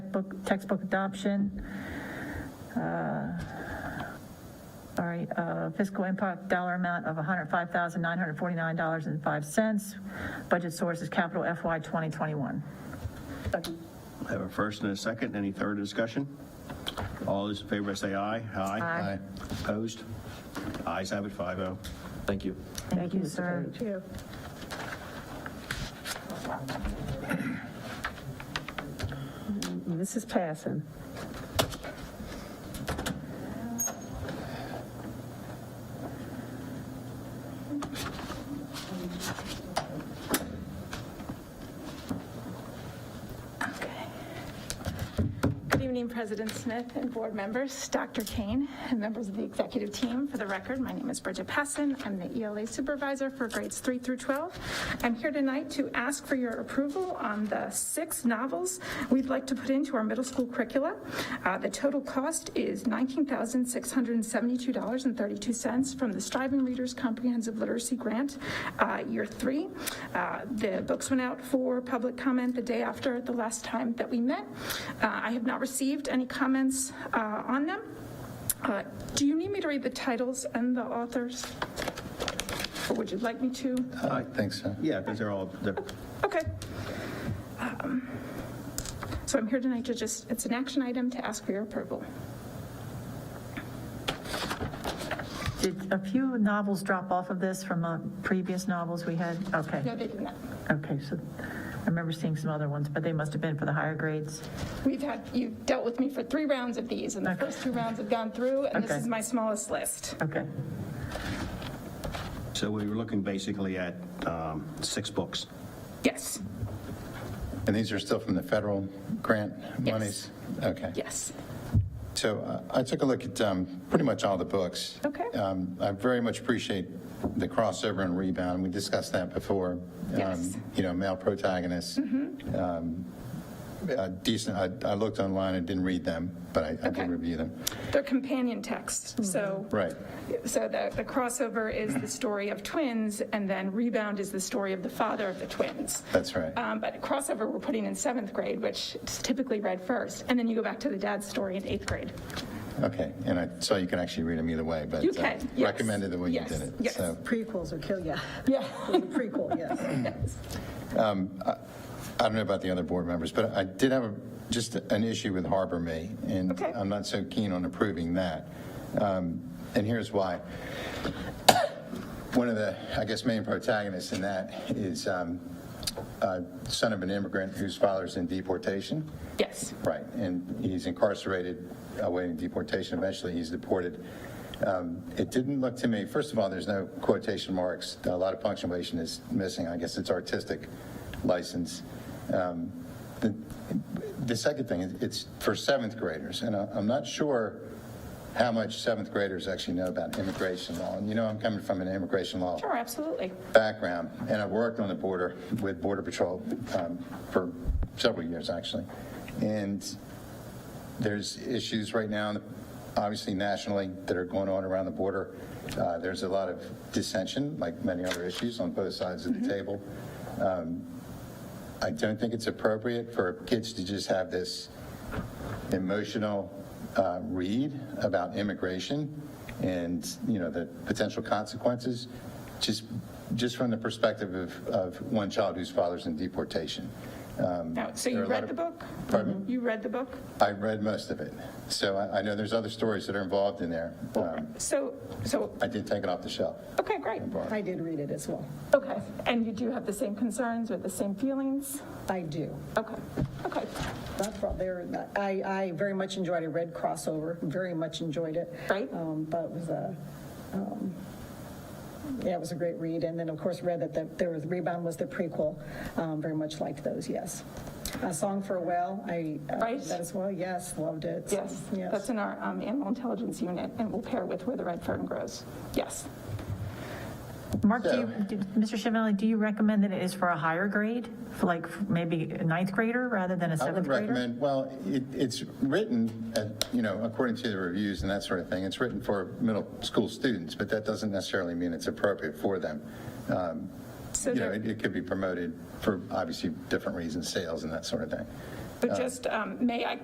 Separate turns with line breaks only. textbook, textbook adoption. Uh, All right, uh, fiscal impact dollar amount of $105,949.05. Budget source is capital FY 2021.
I have a first and a second. Any third discussion? All those in favor say aye.
Aye.
Opposed? Ayes have it, oh. 5-0.
Thank you.
Thank you, sir.
This is passing.
Good evening, President Smith and board members, Dr. Kane, and members of the executive team. For the record, my name is Bridget Passon. I'm the ELA supervisor for grades 3 through 12. I'm here tonight to ask for your approval on the six novels we'd like to put into our middle school curricula. Uh, The total cost is $19,672.32 from the Striving Readers Comprehensive Literacy Grant, uh, year three. Uh, The books went out for public comment the day after the last time that we met. Uh, I have not received any comments uh, on them. Uh, Do you need me to read the titles and the authors? Or would you like me to?
Aye.
Thanks, sir.
Yeah, because they're all, they're-
Okay. Um, So I'm here tonight to just, it's an action item to ask for your approval.
Did a few novels drop off of this from uh, previous novels we had? Okay,
No, they did not.
okay, so I remember seeing some other ones, but they must have been for the higher grades.
We've had, you've dealt with me for three rounds of these, and the
Okay.
first two rounds have gone through, and this
Okay.
is my smallest list.
Okay,
so we were looking basically at um, six books.
Yes,
And these are still from the federal grant monies? Okay.
yes.
So uh, I took a look at um, pretty much all the books.
Okay.
Um, I very much appreciate the crossover and rebound. We discussed that before. Um,
Yes. Mm-hmm.
You know, male protagonists. Um, uh, Decent, I- I looked online and didn't read them, but I I
Okay.
did review them.
They're companion texts, so.
Right.
So the, the crossover is the story of twins, and then Rebound is the story of the father of the twins.
That's right.
Um, But crossover, we're putting in seventh grade, which is typically read first, and then you go back to the dad's story in eighth grade.
Okay. And I saw you can actually read them either way, but.
You
uh,
can, yes.
Recommended the way you
Yes,
did it.
yes.
So
Prequels will kill ya.
Yeah.
There's a prequel, yes.
I don't know about the other board members, but I did have a- just an issue with Harbor May, and
Okay.
I'm not so keen on approving that. Um, And here's why. One of the, I guess, main protagonists in that is um, a son of an immigrant whose father's in deportation.
Yes,
Right, and he's incarcerated awaiting deportation. Eventually, he's deported. Um, It didn't look to me, first of all, there's no quotation marks. A lot of punctuation is missing. I guess it's artistic license. Um, The the second thing, is it's for seventh graders, and I- I'm not sure how much seventh graders actually know about immigration law. And you know, I'm coming from an immigration law
sure, absolutely.
background, and I've worked on the border with Border Patrol um, for several years, actually. And there's issues right now, obviously nationally, that are going on around the border. Uh, There's a lot of dissension, like many other issues, on both sides of the table. Um, I don't think it's appropriate for kids to just have this emotional uh, read about immigration and, you know, the potential consequences, just, just from the perspective of, of one child whose father's in deportation.
Now, So
Um, There
you
are a lot
read
of-
the book?
Pardon
You read the book?
I read most of it, so I, I know there's other stories that are involved in there. Um,
So, so,
I did take it off the shelf.
okay, great.
I did read it as well.
Okay, and you do have the same concerns or the same feelings?
I do.
Okay, okay,
Not from there, I, I very much enjoyed it, read crossover, very much enjoyed it.
Right.
Um, But it was a, um, yeah, it was a great read, and then, of course, read that the- there was, Rebound was the prequel, Um, very much liked those, yes. A Song for a Well, I, uh,
Right.
that as well, yes, loved it.
yes. That's in our um, animal intelligence unit, and we'll pair with where the red fern grows. Yes.
Mark, do you,
So-
do- Mr. Chiavelli, do you recommend that it is for a higher grade, for like maybe a ninth grader rather than a
I
seventh
would
grader?
recommend, well, it, it's written, uh, you know, according to the reviews and that sort of thing, it's written for middle school students, but that doesn't necessarily mean it's appropriate for them. Um,
So
You know,
there-
it it could be promoted for obviously different reasons, sales and that sort of thing.
But just, um, may I